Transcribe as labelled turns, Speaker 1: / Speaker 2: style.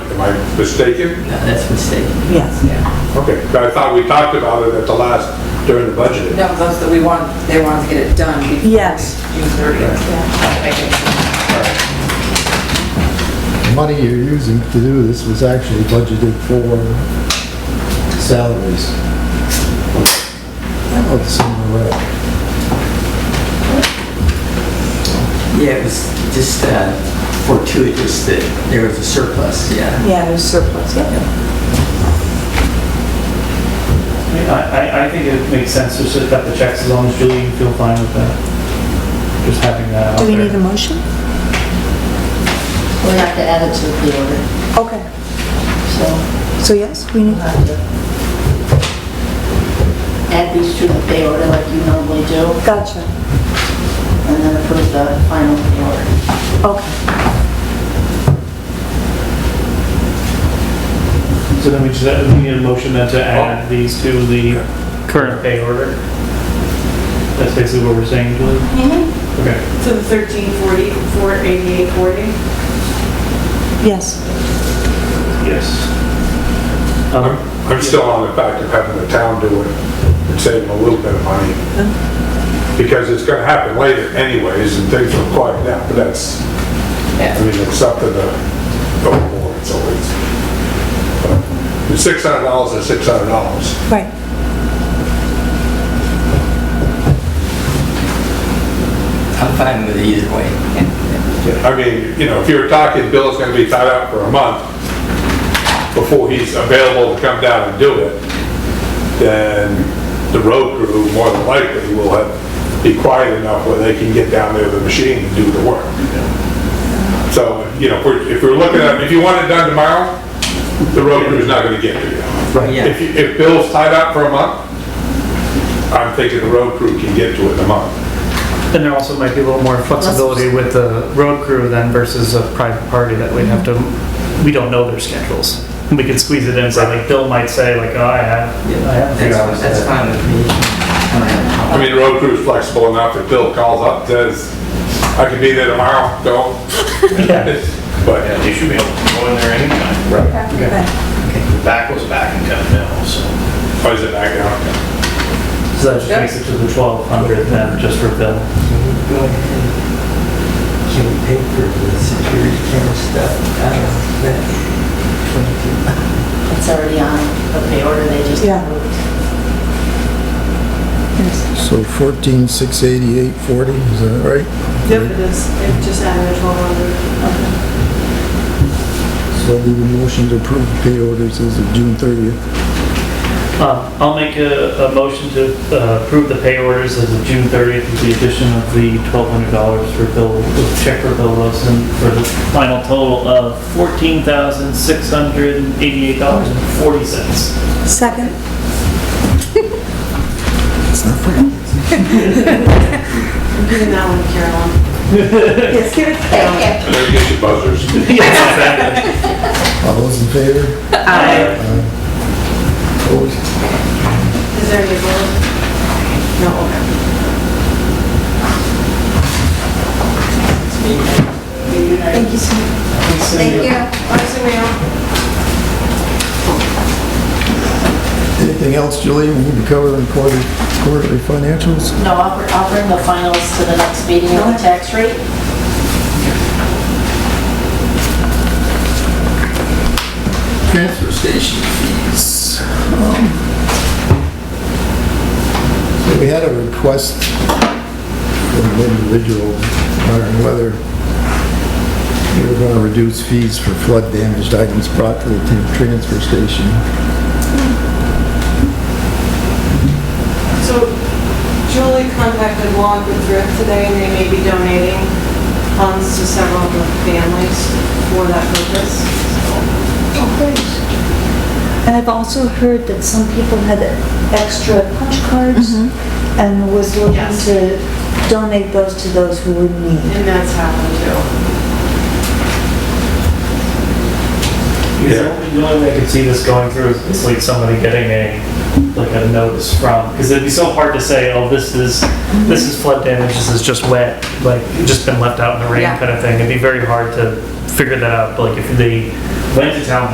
Speaker 1: Am I mistaken?
Speaker 2: No, Uh, that's a mistake.
Speaker 3: Yes.
Speaker 1: Okay, I thought we talked about it at the last, during the budget.
Speaker 4: No, those that we want, they want to get it done before
Speaker 3: Yes.
Speaker 4: June 30th.
Speaker 5: The money you're using to do this was actually budgeted for salaries. Of the senior rep.
Speaker 2: Yeah, it was just uh, fortuitous that there was a surplus, yeah.
Speaker 3: Yeah, there's surplus, yeah.
Speaker 6: I mean, I, I- I think it makes sense to just cut the checks as long as Julie, you feel fine with that. Just having that out
Speaker 3: Do
Speaker 6: there.
Speaker 3: we need a motion?
Speaker 7: We have to add it to the order,
Speaker 3: Okay,
Speaker 7: so
Speaker 3: so yes, we need,
Speaker 7: we'll have to add these to the pay order like you normally do,
Speaker 3: gotcha.
Speaker 7: and then approve the final pay order.
Speaker 3: Okay,
Speaker 6: So then we just, uh, we need a motion then to
Speaker 2: Oh.
Speaker 6: add these to the current pay order. That's basically what we're saying, Julie?
Speaker 3: Mm-hmm.
Speaker 6: Okay,
Speaker 8: So the 1340, 48840?
Speaker 3: yes,
Speaker 6: yes.
Speaker 1: I'm
Speaker 6: Um,
Speaker 1: I'm still on the fact of having the town do it and saving a little bit of money. Because it's gonna happen later anyways, and things will quiet down, but that's, I mean, it's up to the the board, it's always. The six hundred dollars is six hundred dollars.
Speaker 3: right.
Speaker 2: I'm fine with it either way.
Speaker 1: I mean, you know, if you're talking, Bill's gonna be tied up for a month before he's available to come down and do it, then the road crew more than likely will have, be quiet enough where they can get down there with the machine and do the work. So, you know, if we're, if we're looking at, if you want it done tomorrow, the road crew's not gonna get to you.
Speaker 2: Right, yeah.
Speaker 1: If, you- if Bill's tied up for a month, I'm thinking the road crew can get to it in a month.
Speaker 6: And there also might be a little more flexibility with the road crew then versus a private party that we'd have to, we don't know their schedules. We could squeeze it in, so like Bill might say like, oh, I have, I have a few
Speaker 2: That's
Speaker 6: hours.
Speaker 2: that's fine with me. I don't have a problem.
Speaker 1: I mean, the road crew's flexible enough if Bill calls up, says, I can be there tomorrow, go.
Speaker 6: Yeah.
Speaker 1: But,
Speaker 9: Yeah, they should be able to go in there anytime.
Speaker 3: Right.
Speaker 9: Back was back and come down, so.
Speaker 1: or is it back out?
Speaker 6: So that just makes it to the twelve hundred then, just for Bill.
Speaker 2: Go ahead. Can we pay for the security camera stuff? I don't know, that 22.
Speaker 7: It's already on the pay order, they just
Speaker 3: Yeah.
Speaker 7: approved.
Speaker 3: Yes.
Speaker 5: So fourteen, six eighty-eight, forty, is that right?
Speaker 8: Yep, it is. It just added a 1200.
Speaker 5: So the motion to approve the pay orders is of June thirtieth.
Speaker 6: Uh, I'll make a, a motion to uh, approve the pay orders as of June 30th with the addition of the $1,200 for Bill, check for Bill Wilson for the final total of $14,688.40.
Speaker 3: Second,
Speaker 8: I'm giving that one to Carolyn.
Speaker 3: yes, give it,
Speaker 1: And then you get your buzzers.
Speaker 6: Yes, exactly.
Speaker 5: All those in favor? Opposed?
Speaker 8: Is there any gold? No, okay.
Speaker 3: thank you so much.
Speaker 7: Thank you.
Speaker 8: Honestly, ma'am,
Speaker 5: Anything else, Julie, we need to cover in quarterly, quarterly financials?
Speaker 7: No, I'll br- I'll bring the finals to the next meeting on the tax rate.
Speaker 5: Transfer station fees. Um, so We had a request from an individual wondering whether we were going to reduce fees for flood damaged items brought to the t- transfer station.
Speaker 8: so Julie contacted Walk with Thrift today, and they may be donating funds to several of the families for that purpose. So
Speaker 10: And I've also heard that some people had extra punch cards
Speaker 3: Mm-hmm.
Speaker 10: and was looking
Speaker 8: Yes.
Speaker 10: to donate those to those who would need.
Speaker 8: And that's happened too.
Speaker 6: Because The only- the only way I could see this going through is like somebody getting a like a notice from, because it'd be so hard to say, oh, this is, this is flood damage, this is just wet, like, just been left out in the rain
Speaker 4: Yeah.
Speaker 6: kind of thing. It'd be very hard to figure that out, but like if they went to town